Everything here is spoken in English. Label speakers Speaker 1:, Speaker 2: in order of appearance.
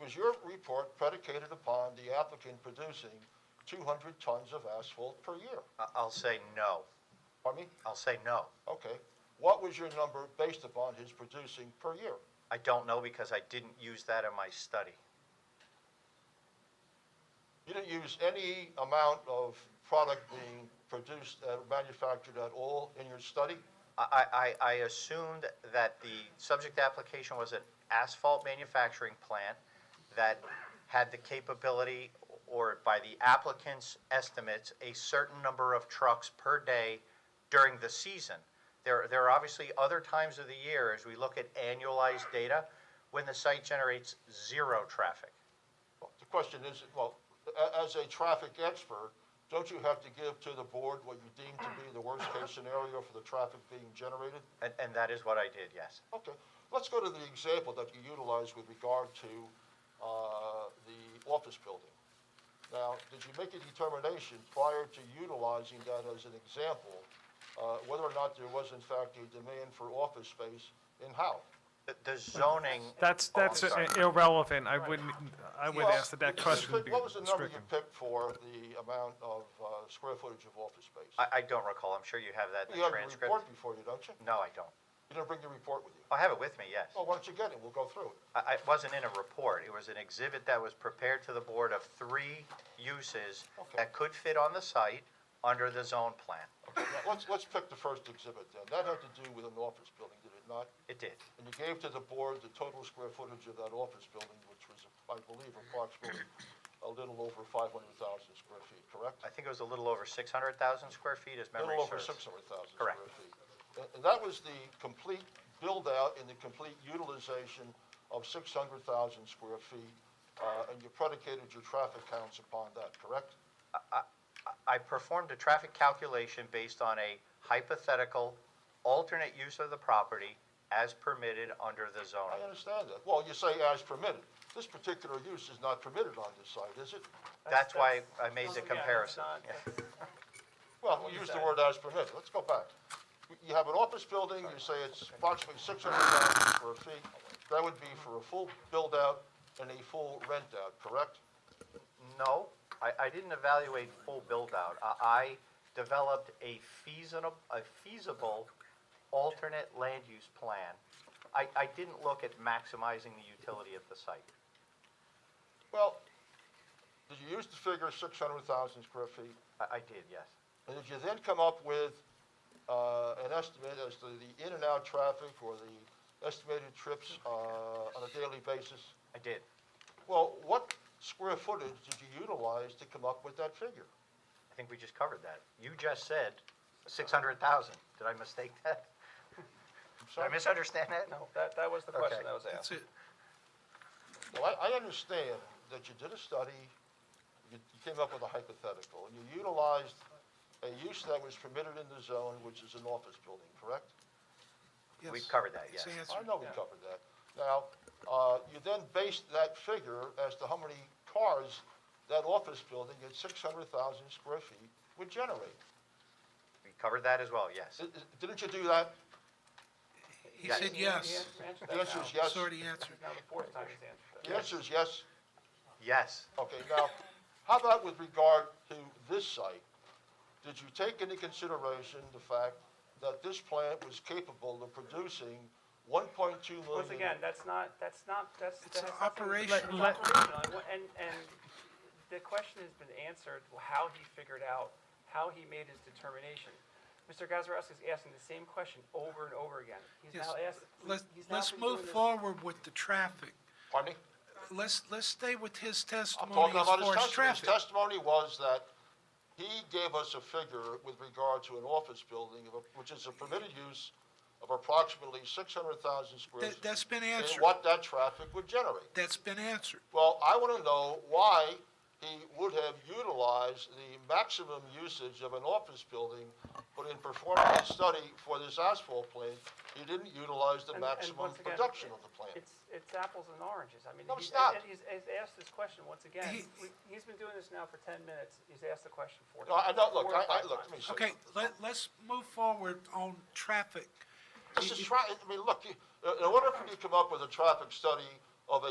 Speaker 1: Was your report predicated upon the applicant producing 200 tons of asphalt per year?
Speaker 2: I- I'll say no.
Speaker 1: Pardon me?
Speaker 2: I'll say no.
Speaker 1: Okay. What was your number based upon his producing per year?
Speaker 2: I don't know because I didn't use that in my study.
Speaker 1: You didn't use any amount of product being produced, uh, manufactured at all in your study?
Speaker 2: I, I, I assumed that the subject application was an asphalt manufacturing plant that had the capability, or by the applicant's estimates, a certain number of trucks per day during the season. There, there are obviously other times of the year, as we look at annualized data, when the site generates zero traffic.
Speaker 1: Well, The question is, well, a- as a traffic expert, don't you have to give to the board what you deem to be the worst-case scenario for the traffic being generated?
Speaker 2: And, and that is what I did, yes.
Speaker 1: Okay, let's go to the example that you utilized with regard to uh, the office building. Now, did you make a determination prior to utilizing that as an example, uh, whether or not there was in fact a demand for office space in Howe?
Speaker 2: The- The zoning.
Speaker 3: That's,
Speaker 2: Oh, I'm
Speaker 3: that's
Speaker 2: sorry.
Speaker 3: irrelevant. I wouldn't, I would
Speaker 1: Well,
Speaker 3: ask that that
Speaker 1: you
Speaker 3: question
Speaker 1: picked-
Speaker 3: be
Speaker 1: What was the number you
Speaker 3: stricken.
Speaker 1: picked for the amount of uh, square footage of office space?
Speaker 2: I, I don't recall. I'm sure you have that in
Speaker 1: You
Speaker 2: the
Speaker 1: have your
Speaker 2: transcript.
Speaker 1: report before you, don't you?
Speaker 2: No, I don't. Oh,
Speaker 1: You didn't bring your report with you.
Speaker 2: I have it with me, yes.
Speaker 1: Well, why don't you get it? We'll go through it.
Speaker 2: I, I- it wasn't in a report. It was an exhibit that was prepared to the board of three uses
Speaker 1: Okay.
Speaker 2: that could fit on the site under the zone plan.
Speaker 1: Okay, now, let's, let's pick the first exhibit then. That had to do with an office building, did it not?
Speaker 2: It did.
Speaker 1: And you gave to the board the total square footage of that office building, which was, I believe, approximately a little over 500,000 square feet, correct?
Speaker 2: I think it was a little over 600,000 square feet, as
Speaker 1: A
Speaker 2: memory
Speaker 1: little over
Speaker 2: serves.
Speaker 1: 600,000 square
Speaker 2: Correct.
Speaker 1: feet. And- And that was the complete build-out and the complete utilization of 600,000 square feet, uh, and you predicated your traffic counts upon that, correct?
Speaker 2: I performed a traffic calculation based on a hypothetical alternate use of the property as permitted under the
Speaker 1: I
Speaker 2: zoning.
Speaker 1: understand that. Well, you say as permitted. This particular use is not permitted on this site, is it?
Speaker 2: That's why
Speaker 4: that's-
Speaker 2: I made
Speaker 4: Yeah,
Speaker 2: the
Speaker 4: that's
Speaker 2: comparison.
Speaker 4: not-
Speaker 2: Yeah.
Speaker 1: Well, we use the word as permitted, let's go back. You- You have an office building, you say it's approximately six hundred thousand square feet, that would be for a full build-out and a full rent-out, correct?
Speaker 2: No, I, I didn't evaluate full build-out. I, I developed a feasible, a feasible alternate land use plan. I, I didn't look at maximizing the utility of the site.
Speaker 1: Well, did you use the figure six hundred thousand square feet?
Speaker 2: I, I did, yes.
Speaker 1: And did you then come up with uh, an estimate as to the in and out traffic or the estimated trips uh, on a daily basis?
Speaker 2: I did.
Speaker 1: Well, what square footage did you utilize to come up with that figure?
Speaker 2: I think we just covered that. You just said six hundred thousand. Did I mistake that?
Speaker 1: I'm
Speaker 2: Did I
Speaker 1: sorry.
Speaker 2: misunderstand that? No.
Speaker 4: That, that was the question
Speaker 2: Okay.
Speaker 4: that was asked.
Speaker 1: Well, I, I understand that you did a study, you you came up with a hypothetical, and you utilized a use that was permitted in the zone, which is an office building, correct?
Speaker 2: We
Speaker 5: Yes.
Speaker 2: covered that, yes.
Speaker 5: It's
Speaker 1: I
Speaker 5: answered.
Speaker 1: know we covered that. Now, uh, you then based that figure as to how many cars that office building at six hundred thousand square feet would generate.
Speaker 2: We covered that as well, yes.
Speaker 1: I- I- Didn't you do that?
Speaker 5: He
Speaker 2: Yes.
Speaker 5: said yes.
Speaker 1: The answer is yes.
Speaker 5: It's already answered.
Speaker 4: Now, the fourth time he's answered.
Speaker 1: The answer is yes.
Speaker 2: Yes.
Speaker 1: Okay, now, how about with regard to this site? Did you take into consideration the fact that this plant was capable of producing 1.2 million?
Speaker 4: Once again, that's not, that's not, that's.
Speaker 5: It's
Speaker 4: that
Speaker 5: an
Speaker 4: has nothing to do-
Speaker 5: operation.
Speaker 4: It's operational, and- and, and the question has been answered, how he figured out, how he made his determination. Mr. Gazarovski is asking the same question over and over again. He's
Speaker 5: Yes.
Speaker 4: now asked.
Speaker 5: Let's,
Speaker 4: he's now
Speaker 5: let's
Speaker 4: been doing
Speaker 5: move
Speaker 4: this-
Speaker 5: forward with the traffic.
Speaker 1: Pardon me?
Speaker 5: Let's, let's stay with his
Speaker 1: I'm
Speaker 5: testimony
Speaker 1: talking
Speaker 5: as
Speaker 1: about
Speaker 5: far
Speaker 1: his testimony.
Speaker 5: as
Speaker 1: His
Speaker 5: traffic.
Speaker 1: testimony was that he gave us a figure with regard to an office building, of a- which is a permitted use of approximately 600,000 square
Speaker 5: That-
Speaker 1: feet.
Speaker 5: that's been
Speaker 1: and
Speaker 5: answered.
Speaker 1: what that traffic would generate.
Speaker 5: That's been answered.
Speaker 1: Well, I want to know why he would have utilized the maximum usage of an office building, but in performing a study for this asphalt plant, he didn't utilize the
Speaker 4: And- and
Speaker 1: maximum
Speaker 4: once again,
Speaker 1: production of the plant.
Speaker 4: It's, it's apples and oranges. I mean,
Speaker 1: No,
Speaker 4: he's,
Speaker 1: it's not.
Speaker 4: and he's, he's asked this question once again.
Speaker 5: He-
Speaker 4: We- He's been doing this now for ten minutes. He's asked the question four
Speaker 1: No, I,
Speaker 4: times.
Speaker 1: no, look,
Speaker 4: four
Speaker 1: I,
Speaker 4: or
Speaker 1: I,
Speaker 4: five
Speaker 1: look,
Speaker 4: times.
Speaker 1: let me say.
Speaker 5: Okay, let, let's move forward on traffic.
Speaker 1: uh, This is, tra- I mean, look, you- in order for you to come up with a traffic study of a